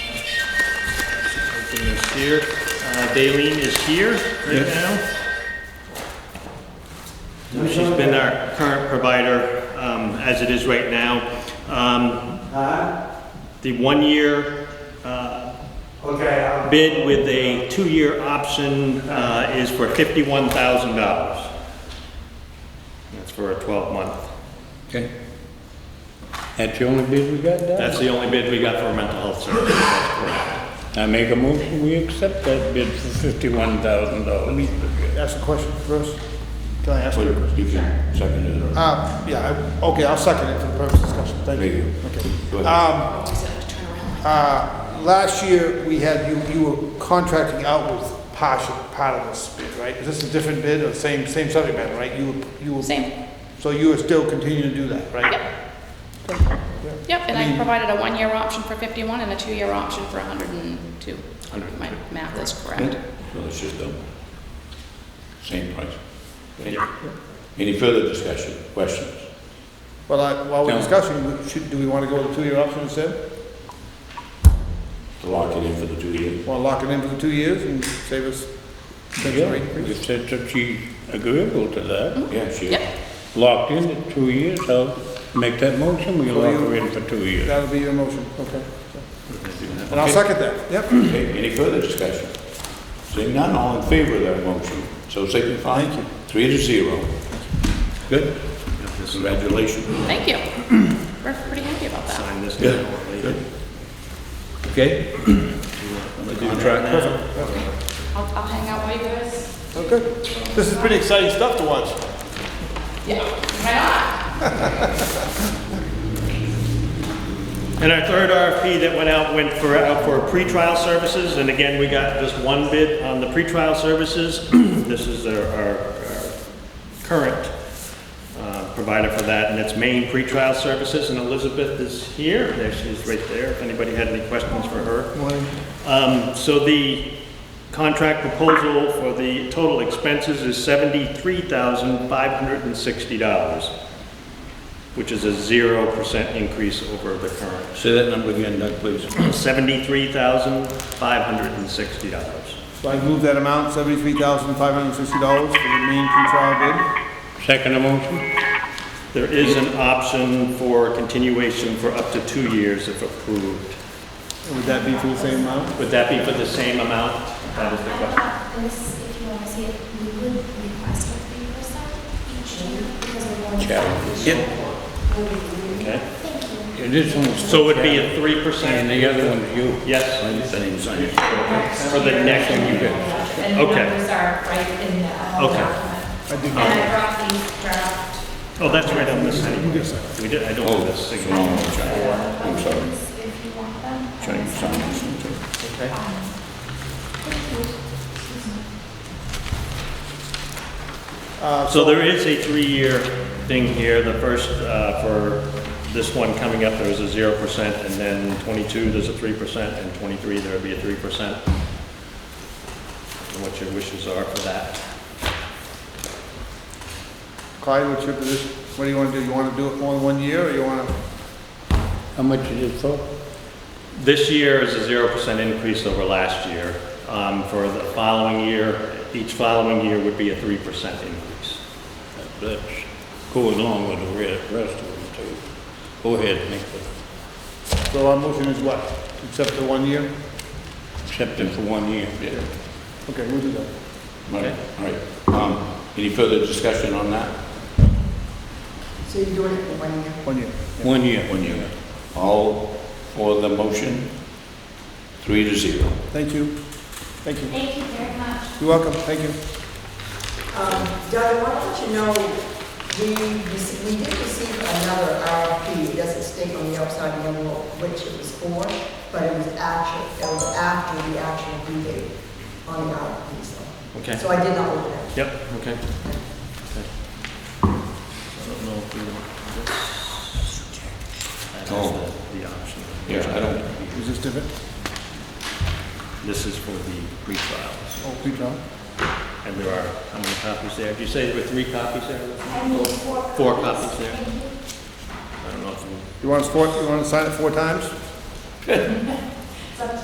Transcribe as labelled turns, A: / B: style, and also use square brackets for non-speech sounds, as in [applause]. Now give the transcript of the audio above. A: Christine is here. Uh, Daleen is here right now. So She's been our current provider, um, as it is right now. Um, the one-year, uh,
B: Okay, I'll be,
A: bid with a two-year option, uh, is for fifty-one thousand dollars. That's for a twelve-month.
C: Okay. That's the only bid we got, Doc?
A: That's the only bid we got for mental health services, that's correct.
C: I make a motion, we accept that bid for fifty-one thousand dollars.
D: Ask a question first? Can I ask you?
E: You can second it or
D: Um, yeah, I- okay, I'll second it for the purpose of discussion, thank
E: Thank
D: you.
E: you.
D: Okay.
E: go ahead.
D: Uh, last year, we had, you, you were contracting out with partial, part of this bid, right? Is this a different bid or the same, same subject matter, right? You, were- you were.
F: Same.
D: So you were still continuing to do that, right?
F: Yep. Yep, and I provided a one-year option for 51 and a two-year option for 102. if My math is correct.
E: No, it's just done. Same price. Okay. Any further discussion, questions?
D: Well, I, while we're
C: No.
D: discussing, we should, do we want to go with the two-year option instead?
E: To lock it in for the two years?
D: Want to lock it in for the two years and save us? potential
C: Yeah,
D: rate
C: you
D: increase?
C: said that she's agreeable to that.
E: Yeah, she is.
F: Yep,
C: Locked in at two years, I'll make that motion, we lock her in for two years.
D: That'll be your motion, okay. And I'll second that, yep.
E: Okay, any further discussion? Seeing none, all in favor of that motion, so signify. Thank you. Three to zero. Good. Congratulations.
F: thank you. We're pretty happy about that.
A: Sign this
E: Good.
A: now or later.
E: Good. Okay? The contract.
F: I'll, I'll hang out while you guys.
D: Okay. This is pretty exciting stuff to watch.
F: Yeah. Why not?
A: And our third RFP that went out went for, out for pretrial services, and again, we got just one bid on the pretrial services. [clears throat] This is our, our our current uh, provider for that, and it's Maine Pretrial Services, and Elizabeth is here, there she is right there, if anybody had any questions for her. Um, So the contract proposal for the total expenses is seventy-three thousand five hundred and sixty dollars, which is a zero percent increase over the current.
C: Say that number again, Doug, please.
A: $73,560.
D: So I move that amount, seventy-three thousand, five hundred and sixty dollars for the main pretrial
C: Second motion?
A: There is an option for continuation for up to two years if approved.
D: bid. And Would that be for the same amount?
A: Would that be for the same amount? That is the question.
G: About this, if you want to see it, we would request a three percent each year because we want to.
A: Okay.
C: Yeah, This one's.
A: So it would be a
C: And
A: 3%?
C: the other one's you.
A: Yes, for the next year.
H: And the
A: Okay.
H: numbers are right in the uh,
A: Okay.
H: document. And I brought these draft
A: Oh, that's right on this side. We did, I don't
E: Oh,
A: have this
C: Oh,
A: signature.
E: I'm sorry,
G: If you want them.
E: trying to sign this one too.
D: Uh,
A: So there is a three-year thing here, the first, uh, for this one coming up, there was a zero percent, and then twenty-two, there's a three percent, and twenty-three, there would be a three percent. What your wishes are for that.
D: Clyde, what's your position? What do you want to do? You want to do it more than one year, or you want to?
C: How much is it for?
A: This year is a zero percent increase over last year. Um, for the following year, each following year would be a three percent increase.
C: That goes along with the re- rest of them too. Go ahead, make the,
D: So our motion is what? Except the one year?
C: accept it for one year.
D: Okay, we'll do that.
E: All right, all right. Um, Any further discussion on that?
I: So you're doing it for one year?
D: One year.
C: One year.
E: One year. All for the motion? Three to zero.
D: Thank you. Thank you.
G: Thank you very much.
D: You're welcome. Thank you.
I: Um, Doug, I want to let you know, we, rece- we did receive another RFP, it doesn't state on the outside of the envelope which it was for, but it was actual, it was after the actual due date on the RFP, so.
A: Okay.
I: So I did not look at it.
A: Yep, okay. Okay. I don't know if you want this. That is the- the option.
E: Yeah, I don't,
D: Is this different?
A: This is for the pre-trials,
D: Oh, pretrial?
A: and there are, how many copies there? Did you say there were three copies there?
G: I need four.
A: Four copies there.
G: Thank you.
A: I don't know if you...
D: You want us four, you want to sign it four times?